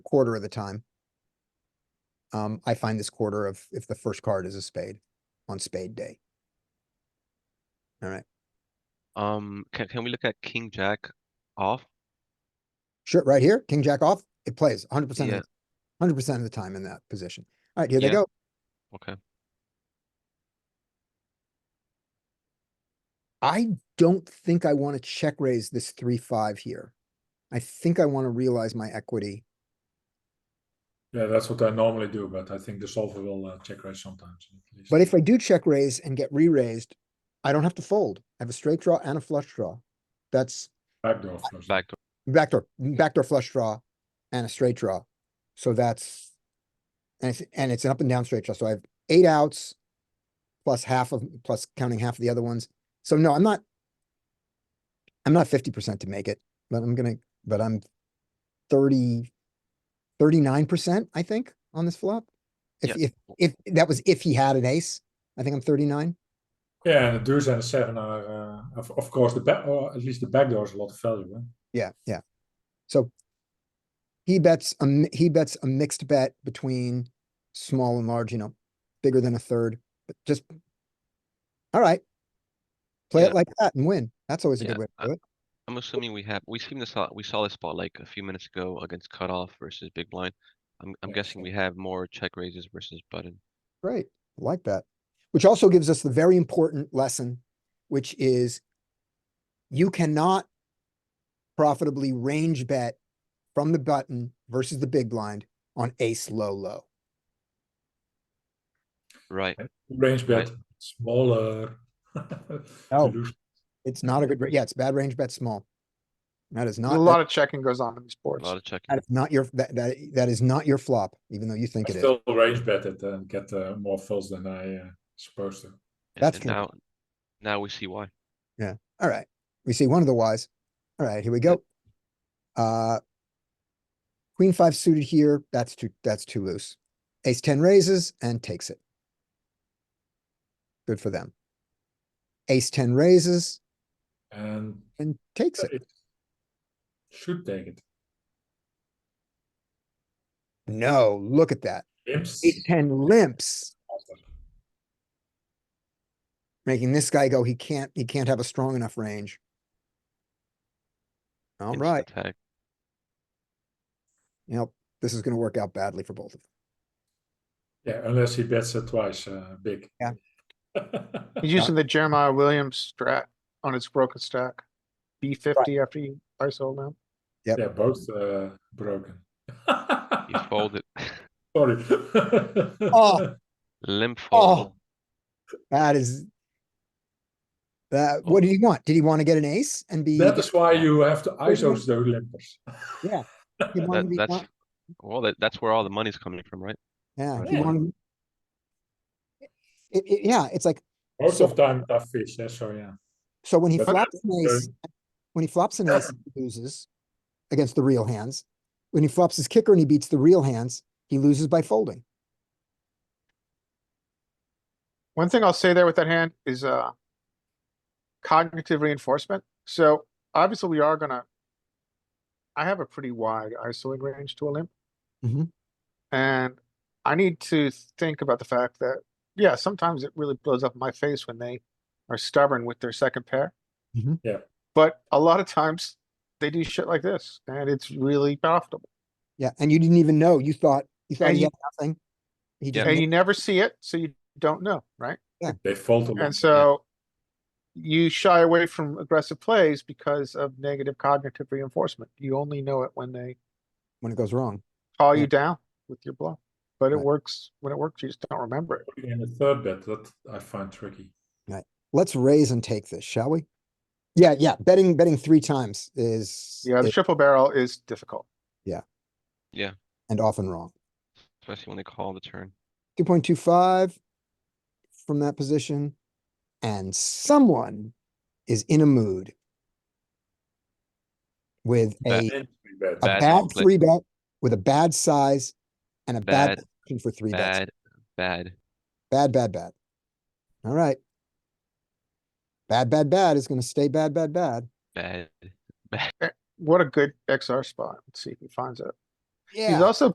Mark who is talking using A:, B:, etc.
A: quarter of the time. Um, I find this quarter of if the first card is a spade on spade day. All right,
B: Um, can, can we look at king jack off?
A: sure, right here, king jack off, it plays hundred
B: Yeah.
A: percent, hundred percent of the time in that position. All right, here they
B: Yeah.
A: go.
B: Okay,
A: I don't think I want to check raise this three, five here. I think I want to realize my equity.
C: Yeah, that's what I normally do, but I think the solver will uh, check raise sometimes. At least.
A: But if I do check raise and get re-raised, I don't have to fold. I have a straight draw and a flush draw. That's
C: backdoor flush.
B: backdoor.
A: backdoor, backdoor flush draw and a straight draw. So that's, and it's, and it's an up and down straight draw. So I have eight outs plus half of, plus counting half of the other ones. So no, I'm not, I'm not fifty percent to make it, but I'm gonna, but I'm thirty, thirty-nine percent, I think, on this flop. If, if, if, that was if he had an ace, I think I'm thirty-nine.
C: Yeah, and the deuce and the seven are, uh, of, of course, the back or at least the backdoor is a lot of value. Huh?
A: Yeah, yeah. So he bets a mi- he bets a mixed bet between small and large, you know, bigger than a third, but just all right. Play
B: Yeah.
A: it like that and win. That's always a
B: Yeah,
A: good way
B: I-
A: to do it.
B: I'm assuming we have, we seen this, uh, we saw this spot like a few minutes ago against cutoff versus big blind. I'm, I'm
A: Yeah,
B: guessing we have more check raises versus button.
A: Great. I like that. Which also gives us the very important lesson, which is you cannot profitably range bet from the button versus the big blind on ace low low.
B: Right,
C: Range bet
B: Right.
C: smaller.
A: Oh.
C: You lose.
A: It's not a good, ra- yeah, it's bad range bet small. That is not.
D: A
A: that-
D: lot of checking goes on in these
B: a
D: boards.
B: lot of checking.
A: That is not your, that, that, that is not your flop, even though you think
C: I
A: it is.
C: still range bet it and get uh, more fills than I uh, supposed to.
B: and-
A: that's
B: and
A: true.
B: Now, now we see why.
A: Alright, we see one of the whys. Alright, here we go. Uh. Queen five suited here, that's too, that's too loose. Ace ten raises and takes it. Good for them. Ace ten raises
C: And
A: and takes it.
C: it should take it.
A: No, look at that.
C: Imps.
A: Ace ten limps, making this guy go, he can't, he can't have a strong enough range.
B: Instant
A: Alright.
B: attack.
A: you know, this is gonna work out badly for both of them.
C: Yeah, unless he bets it twice uh, big.
A: Yeah.
D: He's using the Jeremiah Williams strat on his broken stack. B fifty after you ISO now.
C: yeah, both uh, broken.
B: He folded,
C: Sorry.
A: Oh.
B: limp fold.
A: That is. That, what did he want? Did he want to get an ace and be?
C: That is why you have to
A: you-
C: ISO the limpers.
A: Yeah. he wanted to
B: That,
A: be
B: that's,
A: want-
B: well, that, that's where all the money's coming from, right?
A: Yeah, he
C: Yeah.
A: wanted. It, it, yeah, it's like,
C: Most
A: So-
C: of time tough fish, yeah, so yeah.
A: so when he
C: But-
A: flops an ace, when he flops an ace, he loses against the real hands. When he flops his kicker and he beats the real hands, he loses by folding.
D: One thing I'll say there with that hand is, uh, cognitive reinforcement. So obviously we are gonna, I have a pretty wide ISOing range to a limp.
A: Mhm.
D: And I need to think about the fact that, yeah, sometimes it really blows up in my face when they are stubborn with their second pair.
A: Mhm.
C: Yeah.
D: But a lot of times they do shit like this and it's really profitable.
A: Yeah, and you didn't even know. You thought, you thought
D: And
A: he
D: you-
A: had nothing. He just,
D: And
A: made-
D: you never see it, so you don't know, right?
C: They fold a lot.
D: And so you shy away from aggressive plays because of negative cognitive reinforcement. You only know it when they
A: when it goes wrong,
D: call you
A: Yeah.
D: down with your bluff. But it
A: Right.
D: works, when it works, you just don't remember it.
C: in the third bet, that I find tricky.
A: let's raise and take this, shall we? Yeah, yeah, betting, betting three times is.
D: Yeah, the
A: is-
D: triple barrel is difficult.
A: And often wrong.
B: Especially when they call the turn.
A: two point two five from that position, and someone is in a mood with
B: Bad-
A: a,
C: And three bet.
A: a
B: bad
A: bad
B: split.
A: three bet, with a bad size and a bad
B: Bad,
A: position for three bets.
B: bad, bad.
A: Bad, bad, bad. All right. Bad, bad, bad is gonna stay bad, bad, bad.
B: Bad.
D: What a good XR spot. Let's see if he finds it.
A: Yeah.
D: He's also